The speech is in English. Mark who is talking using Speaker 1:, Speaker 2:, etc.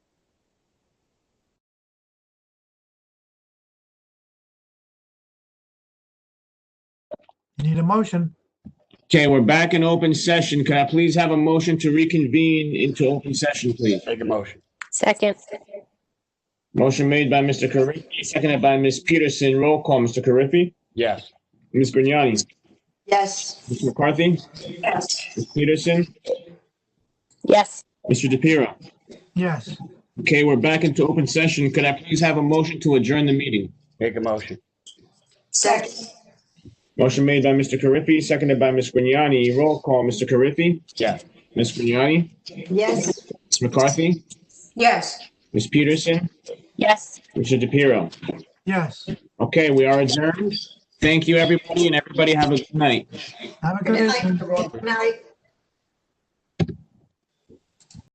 Speaker 1: Need a motion?
Speaker 2: Okay, we're back in open session. Could I please have a motion to reconvene into open session, please?
Speaker 3: Make a motion.
Speaker 4: Second,
Speaker 2: Motion made by Mr. Carriffy, seconded by Ms. Peterson. Roll call, Mr. Carriffy?
Speaker 3: Yes.
Speaker 2: Ms. Grignani?
Speaker 5: Yes.
Speaker 2: Ms. McCarthy?
Speaker 5: Yes.
Speaker 2: Ms. Peterson?
Speaker 4: yes.
Speaker 2: Mr. DePiero?
Speaker 1: Yes.
Speaker 2: Okay, we're back into open session. Could I please have a motion to adjourn the meeting?
Speaker 3: Make a motion.
Speaker 5: Second.
Speaker 2: Motion made by Mr. Carriffy, seconded by Ms. Grignani. Roll call, Mr. Carriffy?
Speaker 3: Yes.
Speaker 2: Ms. Grignani?
Speaker 5: Yes.
Speaker 2: Ms. McCarthy?
Speaker 5: Yes.
Speaker 2: Ms. Peterson?
Speaker 4: Yes.
Speaker 2: Mr. DePiero?
Speaker 1: Yes.
Speaker 2: Okay, we are adjourned. Thank you, everybody, and everybody have a good night.
Speaker 1: Have a good
Speaker 5: Good
Speaker 1: evening.
Speaker 5: night. Good night.